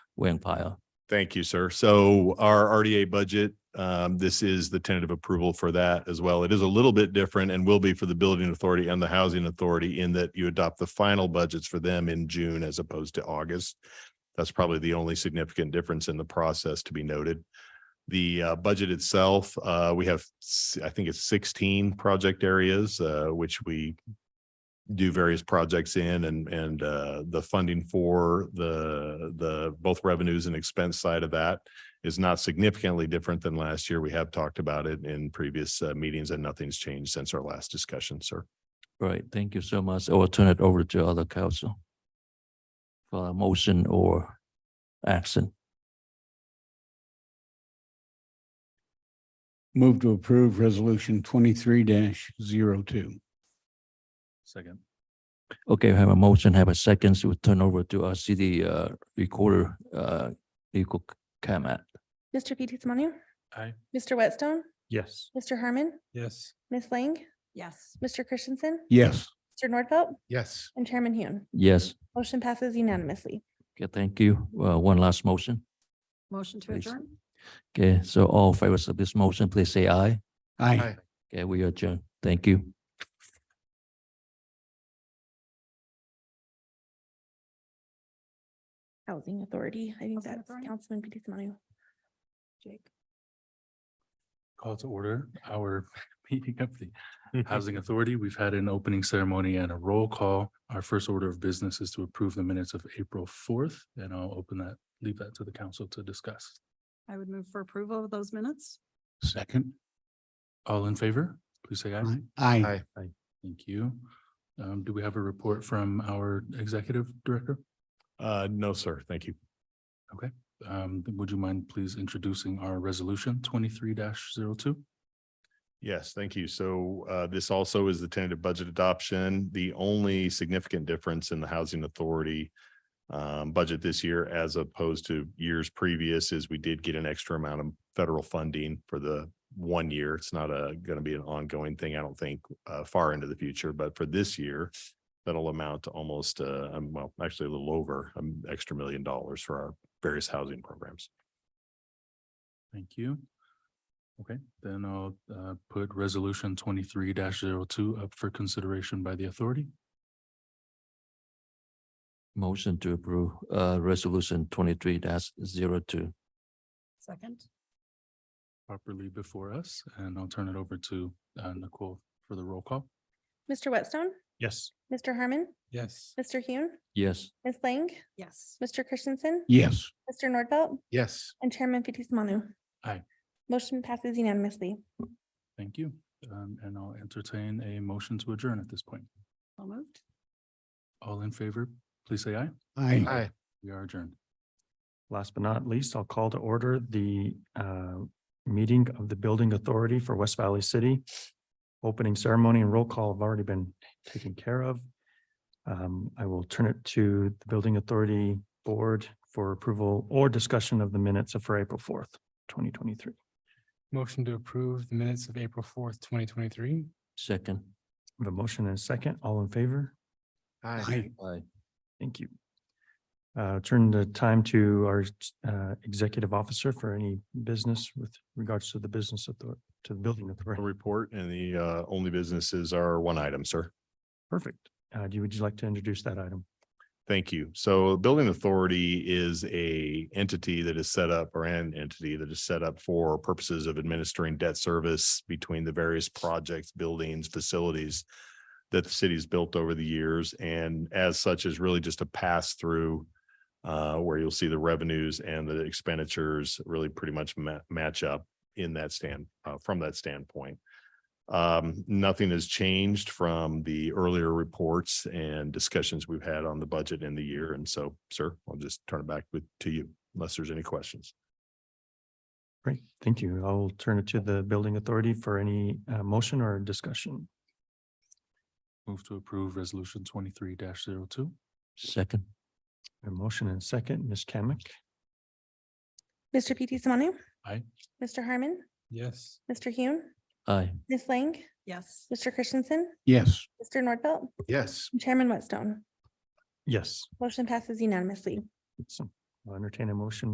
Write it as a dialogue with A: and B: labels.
A: Wang Pyle.
B: Thank you, sir. So our RDA budget, um, this is the tentative approval for that as well. It is a little bit different and will be for the building authority and the housing authority in that you adopt the final budgets for them in June as opposed to August. That's probably the only significant difference in the process to be noted. The uh, budget itself, uh, we have, s- I think it's sixteen project areas, uh, which we do various projects in and, and, uh, the funding for the, the, both revenues and expense side of that is not significantly different than last year. We have talked about it in previous, uh, meetings and nothing's changed since our last discussion, sir.
A: Right, thank you so much. I will turn it over to other council for a motion or action.
C: Move to approve resolution twenty-three 2
D: Second.
A: Okay, I have a motion, have a second, so we turn over to our city uh, recorder, uh, legal comment.
E: Mr. Fitzsimonu,
D: Aye.
E: Mr. Whitstone,
D: Yes.
E: Mr. Herman,
D: Yes.
E: Ms. Lang,
F: Yes.
E: Mr. Christensen,
C: Yes,
E: Mr. Nordfelt,
D: Yes.
E: and Chairman Hune.
A: Yes,
E: Motion passes unanimously.
A: okay, thank you. Uh, One last motion.
F: Motion to
A: Please.
F: adjourn?
A: Okay, so all favors of this motion, please say aye.
C: aye.
D: Aye.
A: Okay, we adjourn. Thank you.
E: Housing Authority, I think
F: Housing
E: that's
F: Authority?
E: Councilman Fitzsimonu.
F: Jake?
D: Call to order our meeting of the Housing Authority. We've had an opening ceremony and a roll call. Our first order of business is to approve the minutes of April fourth, and I'll open that, leave that to the council to discuss.
F: I would move for approval of those minutes.
C: Second,
D: All in favor, please say aye.
C: aye.
D: Aye. Thank you. Um, do we have a report from our executive director?
B: Uh, no, sir. Thank you.
D: Um, would you mind please introducing our resolution twenty-three 2
B: Yes, thank you. So uh, this also is the tentative budget adoption. The only significant difference in the housing authority um, budget this year as opposed to years previous is we did get an extra amount of federal funding for the one year. It's not a, going to be an ongoing thing, I don't think, uh, far into the future, but for this year, that'll amount to almost, uh, um, well, actually a little over, um, extra million dollars for our various housing programs.
D: Thank you. Okay, then I'll uh put resolution twenty-three 2 up for consideration by the authority.
A: Motion to approve uh, resolution twenty-three dash zero two.
F: Second?
D: Properly before us, and I'll turn it over to uh Nicole for the roll call.
E: Mr. Whitstone,
D: Yes.
E: Mr. Herman,
D: Yes.
E: Mr. Hune,
A: Yes.
E: Ms. Lang,
F: Yes.
E: Mr. Christensen,
C: Yes.
E: Mr. Nordfelt,
D: Yes.
E: and Chairman Fitzsimonu.
D: Aye.
E: Motion passes unanimously.
D: Thank you, um, and I'll entertain a motion to adjourn at this point.
F: So moved?
D: All in favor, please say aye.
C: Aye.
D: We are adjourned.
G: Last but not least, I'll call to order the uh, meeting of the Building Authority for West Valley City. Opening ceremony and roll call have already been taken care of. Um, I will turn it to the Building Authority Board for approval or discussion of the minutes of for April fourth, twenty twenty-three.
H: Motion to approve the minutes of April fourth, twenty twenty-three.
A: Second.
G: The motion and a second, all in favor?
C: Aye.
A: Aye.
G: Thank you. Uh, Turn the time to our uh, Executive Officer for any business with regards to the business authority, to the Building Authority.
B: A report and the uh, only businesses are one item, sir.
G: Perfect. Uh, do, you- would you like to introduce that item?
B: Thank you. So Building Authority is a entity that is set up or an entity that is set up for purposes of administering debt service between the various projects, buildings, facilities that the city's built over the years and as such is really just a pass through uh, where you'll see the revenues and the expenditures really pretty much ma- match up in that stand, uh, from that standpoint. Um, nothing has changed from the earlier reports and discussions we've had on the budget in the year. And so, sir, I'll just turn it back with, to you unless there's any questions.
G: Great, thank you. I'll turn it to the building authority for any uh, motion or discussion.
D: Move to approve resolution twenty-three 2
A: Second.
G: A motion and a second, Ms. Kamic.
E: Mr. Fitzsimonu.
D: Aye.
E: Mr. Herman,
H: Yes.
E: Mr. Hune,
A: Aye.
E: Ms. Lang,
F: Yes.
E: Mr. Christensen,
C: Yes.
E: Mr. Nordfelt,
B: Yes.
E: and Chairman Whitstone.
G: Yes.
E: Motion passes unanimously.
G: Awesome. I'll entertain a motion